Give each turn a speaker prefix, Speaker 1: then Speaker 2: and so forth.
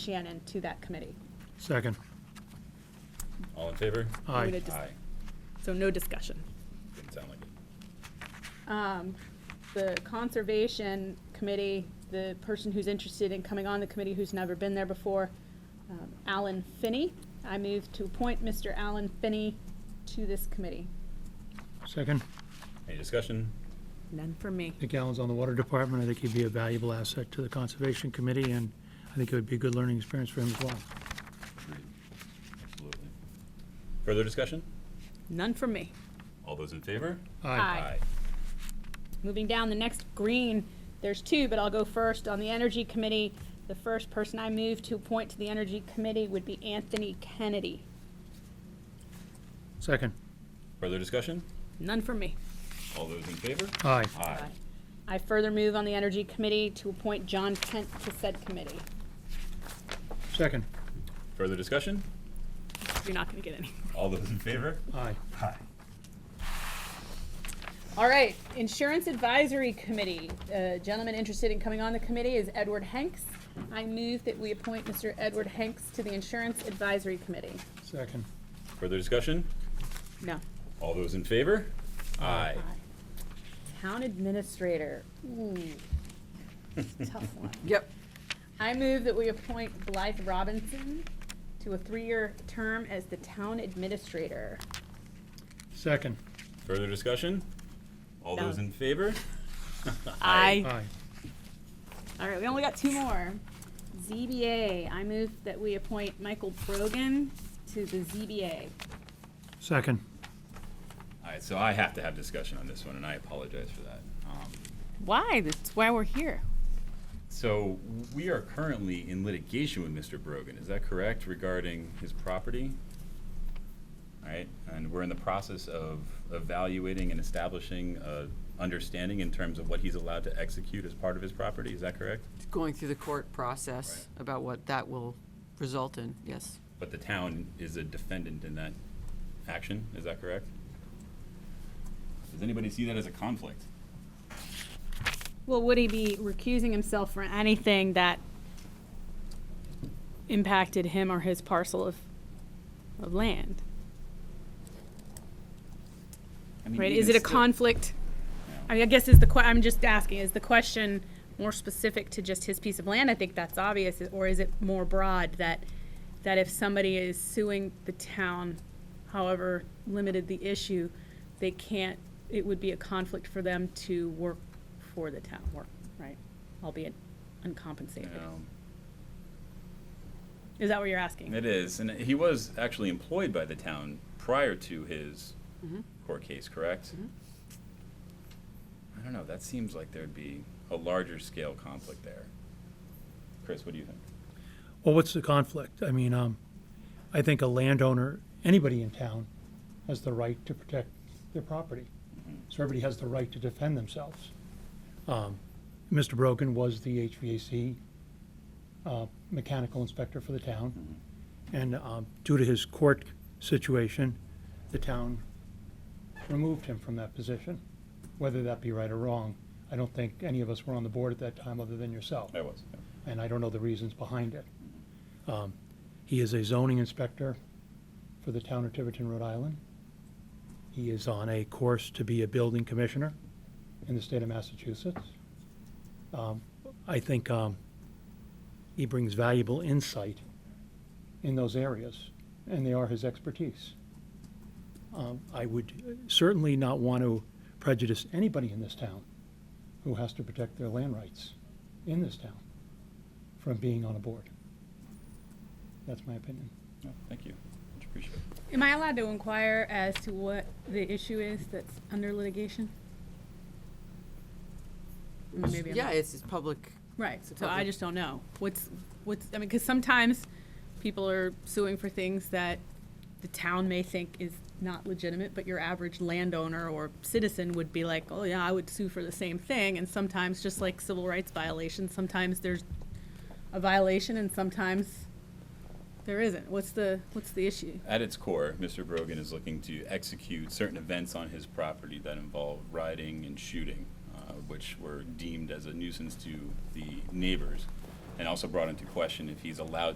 Speaker 1: Shannon to that committee.
Speaker 2: Second.
Speaker 3: All in favor?
Speaker 1: We
Speaker 2: Aye.
Speaker 1: did dis-
Speaker 3: Aye.
Speaker 1: So no discussion.
Speaker 3: Didn't sound like it.
Speaker 1: Um, The Conservation Committee, the person who's interested in coming on the committee who's never been there before, um, Alan Finney. I move to appoint Mr. Alan Finney to this committee.
Speaker 2: Second.
Speaker 3: Any discussion?
Speaker 1: None for me.
Speaker 2: I think Alan's on the Water Department. I think he'd be a valuable asset to the Conservation Committee, and I think it would be a good learning experience for him as well.
Speaker 3: Absolutely. Further discussion?
Speaker 1: None for me.
Speaker 3: All those in favor?
Speaker 1: Aye. Moving down, the next green, there's two, but I'll go first. On the Energy Committee, the first person I move to appoint to the Energy Committee would be Anthony Kennedy.
Speaker 2: Second.
Speaker 3: Further discussion?
Speaker 1: None for me.
Speaker 3: All those in favor?
Speaker 2: Aye.
Speaker 3: Aye.
Speaker 1: I further move on the Energy Committee to appoint John Kent to said committee.
Speaker 2: Second.
Speaker 3: Further discussion?
Speaker 1: You're not gonna get any.
Speaker 3: All those in favor?
Speaker 2: Aye.
Speaker 3: Aye.
Speaker 1: All right, Insurance Advisory Committee. Uh, gentleman interested in coming on the committee is Edward Hanks. I move that we appoint Mr. Edward Hanks to the Insurance Advisory Committee.
Speaker 2: Second.
Speaker 3: Further discussion?
Speaker 1: No.
Speaker 3: All those in favor? Aye.
Speaker 1: Town Administrator, ooh, tough one.
Speaker 4: Yep.
Speaker 1: I move that we appoint Blythe Robinson to a three-year term as the Town Administrator.
Speaker 2: Second.
Speaker 3: Further discussion? All those in favor?
Speaker 2: Aye.
Speaker 1: All right, we only got two more. ZBA, I move that we appoint Michael Brogan to the ZBA.
Speaker 2: Second.
Speaker 3: All right, so I have to have discussion on this one, and I apologize for that. Um,
Speaker 4: Why? That's why we're here.
Speaker 3: So we are currently in litigation with Mr. Brogan, is that correct, regarding his property? All right, and we're in the process of evaluating and establishing a understanding in terms of what he's allowed to execute as part of his property, is that correct?
Speaker 4: Going through the court process about what that will result in, yes.
Speaker 3: But the town is a defendant in that action, is that correct? Does anybody see that as a conflict?
Speaker 1: Well, would he be recusing himself for anything that impacted him or his parcel of, of land?
Speaker 3: I mean,
Speaker 1: Right,
Speaker 3: even
Speaker 1: is it a
Speaker 3: still-
Speaker 1: conflict?
Speaker 3: No.
Speaker 1: I mean, I guess is the que, I'm just asking, is the question more specific to just his piece of land? I think that's obvious, or is it more broad that, that if somebody is suing the town, however limited the issue, they can't, it would be a conflict for them to work for the town, work, right? Albeit uncompensated.
Speaker 3: No.
Speaker 1: Is that what you're asking?
Speaker 3: It is, and he was actually employed by the town prior to his court case, correct? I don't know, that seems like there'd be a larger scale conflict there. Chris, what do you think?
Speaker 2: Well, what's the conflict? I mean, um, I think a landowner, anybody in town, has the right to protect their property. So everybody has the right to defend themselves. Um, Mr. Brogan was the HVAC, uh, mechanical inspector for the town. And, um, due to his court situation, the town removed him from that position. Whether that be right or wrong, I don't think any of us were on the board at that time other than yourself
Speaker 3: I was.
Speaker 2: and I don't know the reasons behind it. Um, He is a zoning inspector for the town of Tiverton, Rhode Island. He is on a course to be a building commissioner in the state of Massachusetts. Um, I think um, he brings valuable insight in those areas, and they are his expertise. Um, I would certainly not want to prejudice anybody in this town who has to protect their land rights in this town from being on a board. That's my opinion.
Speaker 3: No, Thank you, much appreciated.
Speaker 1: Am I allowed to inquire as to what the issue is that's under litigation? Maybe I'm
Speaker 4: Yeah, it's, it's public,
Speaker 1: Right,
Speaker 4: It's a
Speaker 1: so I
Speaker 4: public-
Speaker 1: just don't know. What's, what's, I mean, because sometimes people are suing for things that the town may think is not legitimate, but your average landowner or citizen would be like, oh yeah, I would sue for the same thing. And sometimes, just like civil rights violations, sometimes there's a violation and sometimes there isn't. What's the, what's the issue?
Speaker 3: At its core, Mr. Brogan is looking to execute certain events on his property that involve rioting and shooting, uh, which were deemed as a nuisance to the neighbors, and also brought into question if he's allowed to